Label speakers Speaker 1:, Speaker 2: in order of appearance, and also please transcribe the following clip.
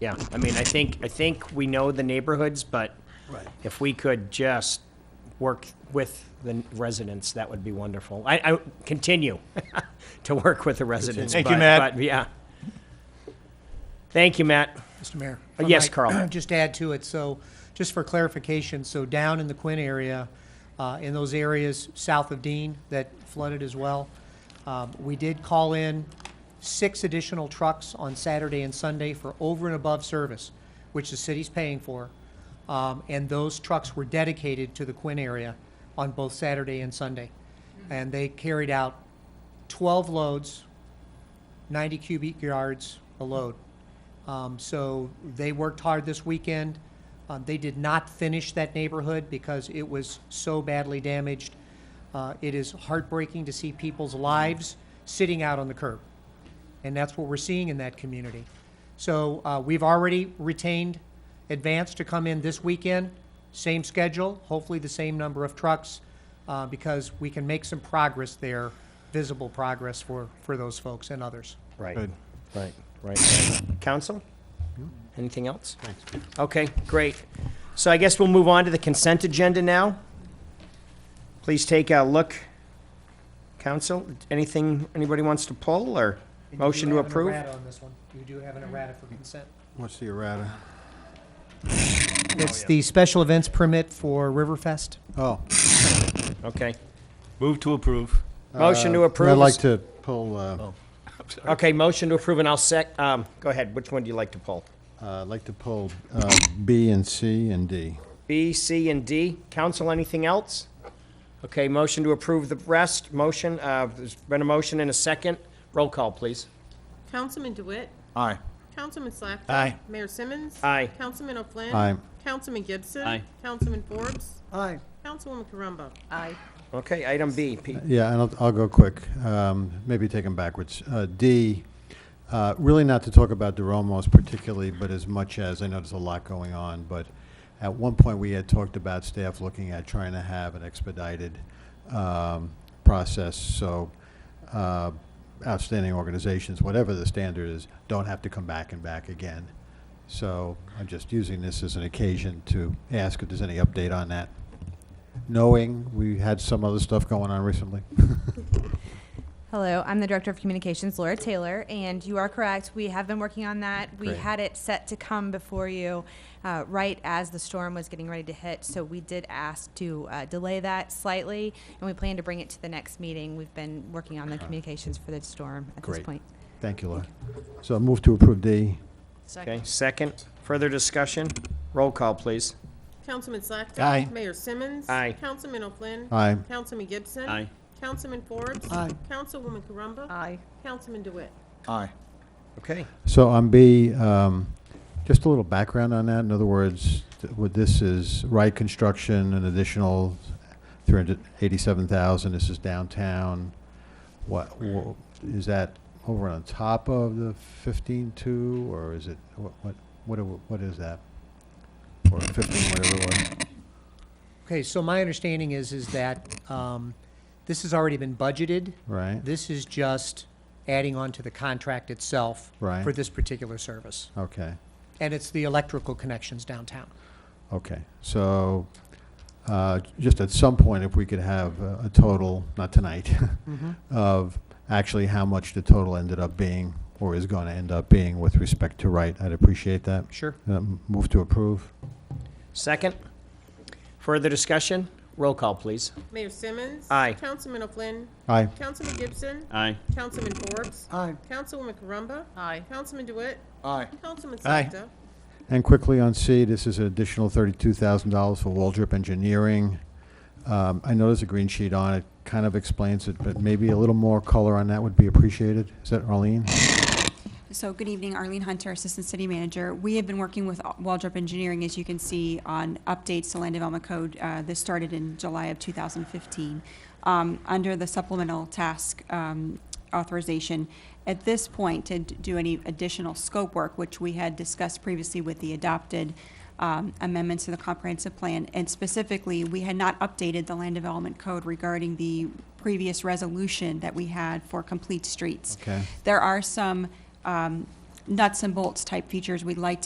Speaker 1: Yeah, I mean, I think, I think we know the neighborhoods, but
Speaker 2: Right.
Speaker 1: if we could just work with the residents, that would be wonderful. I, I continue to work with the residents.
Speaker 3: Thank you,
Speaker 1: but-
Speaker 3: Matt.
Speaker 1: but, Yeah. Thank you, Matt.
Speaker 2: Mr. Mayor.
Speaker 1: Uh,
Speaker 2: if I
Speaker 1: yes,
Speaker 2: might
Speaker 1: Carl.
Speaker 2: Just add to it, so, just for clarification, so down in the Quinn area, uh, in those areas south of Dean that flooded as well, um, we did call in six additional trucks on Saturday and Sunday for over and above service, which the city's paying for. Um, And those trucks were dedicated to the Quinn area on both Saturday and Sunday. And they carried out 12 loads, 90 cubic yards a load. Um, so they worked hard this weekend. Um, they did not finish that neighborhood because it was so badly damaged. Uh, it is heartbreaking to see people's lives sitting out on the curb. And that's what we're seeing in that community. So uh, we've already retained Advance to come in this weekend, same schedule, hopefully the same number of trucks, uh, because we can make some progress there, visible progress for, for those folks and others.
Speaker 1: Right,
Speaker 3: Good.
Speaker 1: right, right. Council? Anything else? Okay, great. So I guess we'll move on to the consent agenda now. Please take a look. Council, anything anybody wants to pull or motion to approve?
Speaker 2: on this one. You do have an errata for consent.
Speaker 3: What's the errata?
Speaker 2: It's the special events permit for Riverfest.
Speaker 3: Oh.
Speaker 1: Okay.
Speaker 4: Move to approve.
Speaker 1: Motion to
Speaker 3: uh,
Speaker 1: approve.
Speaker 3: I'd like to pull, uh,
Speaker 1: Okay, motion to approve, and I'll sec, um, go ahead, which one do you like to pull?
Speaker 3: uh, I'd like to pull uh, B and C and D.
Speaker 1: B, C, and D. Council, anything else? Okay, motion to approve the rest, motion, uh, there's been a motion and a second. Roll call, please.
Speaker 5: Councilman DeWitt.
Speaker 4: Aye.
Speaker 5: Councilman Slackton.
Speaker 4: Aye.
Speaker 5: Mayor Simmons.
Speaker 1: Aye.
Speaker 5: Councilman O'Flynn.
Speaker 3: Aye.
Speaker 5: Councilman Gibson.
Speaker 4: Aye.
Speaker 5: Councilman Forbes.
Speaker 2: Aye.
Speaker 5: Councilwoman Corumba.
Speaker 1: Okay, item B, Pete.
Speaker 3: Yeah, and I'll, I'll go quick, um, maybe take them backwards. Uh, D, uh, really not to talk about DeRomos particularly, but as much as, I know there's a lot going on, but at one point, we had talked about staff looking at trying to have an expedited, um, process, so, uh, outstanding organizations, whatever the standard is, don't have to come back and back again. So I'm just using this as an occasion to ask if there's any update on that knowing we had some other stuff going on recently.
Speaker 6: Hello, I'm the Director of Communications, Laura Taylor, and you are correct. We have been working on that. We
Speaker 3: Great.
Speaker 6: had it set to come before you uh, right as the storm was getting ready to hit, so we did ask to uh, delay that slightly, and we plan to bring it to the next meeting. We've been working on the communications for the storm at this
Speaker 3: Uh-huh. Great.
Speaker 6: point.
Speaker 3: Thank you, Laura. So move to approve D.
Speaker 1: Okay, second. Further discussion? Roll call, please.
Speaker 5: Councilman Slackton.
Speaker 4: Aye.
Speaker 5: Mayor Simmons.
Speaker 1: Aye.
Speaker 5: Councilman O'Flynn.
Speaker 3: Aye.
Speaker 5: Councilman Gibson.
Speaker 4: Aye.
Speaker 5: Councilman Forbes.
Speaker 2: Aye.
Speaker 5: Councilwoman Corumba.
Speaker 7: Aye.
Speaker 5: Councilman DeWitt.
Speaker 4: Aye.
Speaker 1: Okay.
Speaker 3: So on B, um, just a little background on that. In other words, th- what this is, Wright Construction, an additional three hundred eighty-seven thousand. This is downtown. What, wha- is that over on top of the fifteen-two, or is it, what, what, what are- what is that? Or fifteen, whatever it was?
Speaker 2: Okay, so my understanding is, is that um, this has already been budgeted.
Speaker 3: Right,
Speaker 2: This is just adding on to the contract itself
Speaker 3: Right.
Speaker 2: for this particular service.
Speaker 3: okay.
Speaker 2: And it's the electrical connections downtown.
Speaker 3: Okay, so, uh, just at some point, if we could have a a total, not tonight,
Speaker 2: Mm-hmm.
Speaker 3: of actually how much the total ended up being, or is going to end up being with respect to Wright, I'd appreciate that.
Speaker 2: Sure.
Speaker 3: Uh, Move to approve?
Speaker 1: Second. Further discussion? Roll call, please.
Speaker 5: Mayor Simmons.
Speaker 1: Aye.
Speaker 5: Councilman O'Flynn.
Speaker 3: Aye.
Speaker 5: Councilman Gibson.
Speaker 4: Aye.
Speaker 5: Councilman Forbes.
Speaker 2: Aye.
Speaker 5: Councilwoman Corumba.
Speaker 7: Aye.
Speaker 5: Councilman DeWitt.
Speaker 4: Aye.
Speaker 5: Councilman
Speaker 4: Aye.
Speaker 5: Slackton.
Speaker 3: And quickly on C, this is an additional thirty-two thousand dollars for Waldrop Engineering. Um, I know there's a green sheet on it, kind of explains it, but maybe a little more color on that would be appreciated. Is that Arlene?
Speaker 8: So, good evening, Arlene Hunter, Assistant City Manager. We have been working with Waldrop Engineering, as you can see, on updates to Land Development Code. Uh, This started in July of 2015, um, under the supplemental task um, authorization. At this point, to d- do any additional scope work, which we had discussed previously with the adopted um, amendments to the comprehensive plan, and specifically, we had not updated the land development code regarding the previous resolution that we had for complete streets.
Speaker 3: Okay.
Speaker 8: There are some um, nuts and bolts type features we'd like to